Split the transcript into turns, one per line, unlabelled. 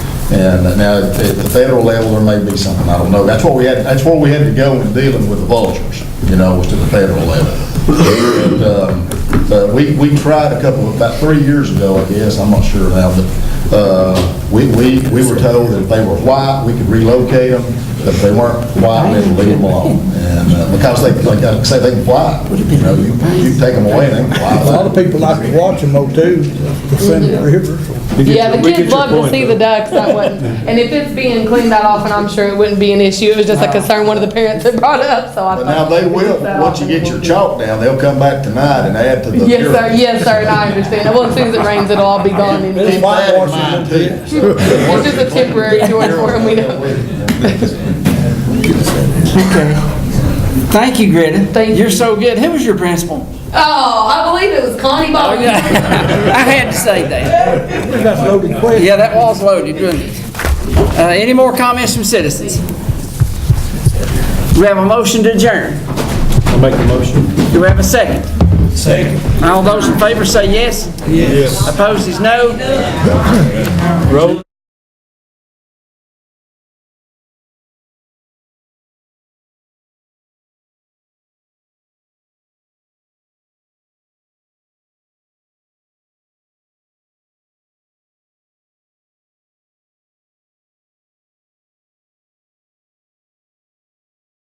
And now, at the federal level, there may be something, I don't know. That's what we had, that's where we had to go in dealing with the vultures, you know, was to the federal level. And, um, But we, we tried a couple, about three years ago, I guess, I'm not sure now, but uh, we, we, we were told that if they were white, we could relocate them, but if they weren't white, we had to leave them alone. And uh, because they, like I say, they can fly, you know, you, you take them away, they can fly.
A lot of people like to watch them though too, the Seminole River.
Yeah, the kids love to see the ducks, that wasn't, and if it's being cleaned that often, I'm sure it wouldn't be an issue, it was just a concern one of the parents had brought up, so I
But now
thought.
they will,
That
once you
often
get
will
your
be-
chalk down, they'll come back tonight and add to the.
Yes, sir, yes, sir, and I understand, well, as soon as it rains, it'll all be gone
It's
anyway.
That in
whitewashing
mind, too.
them too.
It's just a temporary joint for them, we know.
Okay. Thank you, Greta.
Thank
You're
you.
so good. Who was your principal?
Oh, I believe it was Connie Bobby.
I had to say that.
That's a loaded question.
Yeah, that was loaded, wasn't it? Uh, Any more comments from citizens? We have a motion to adjourn.
I'll make the motion.
Do we have a second? Second. All those in favor say yes. Yes. Opposed is no.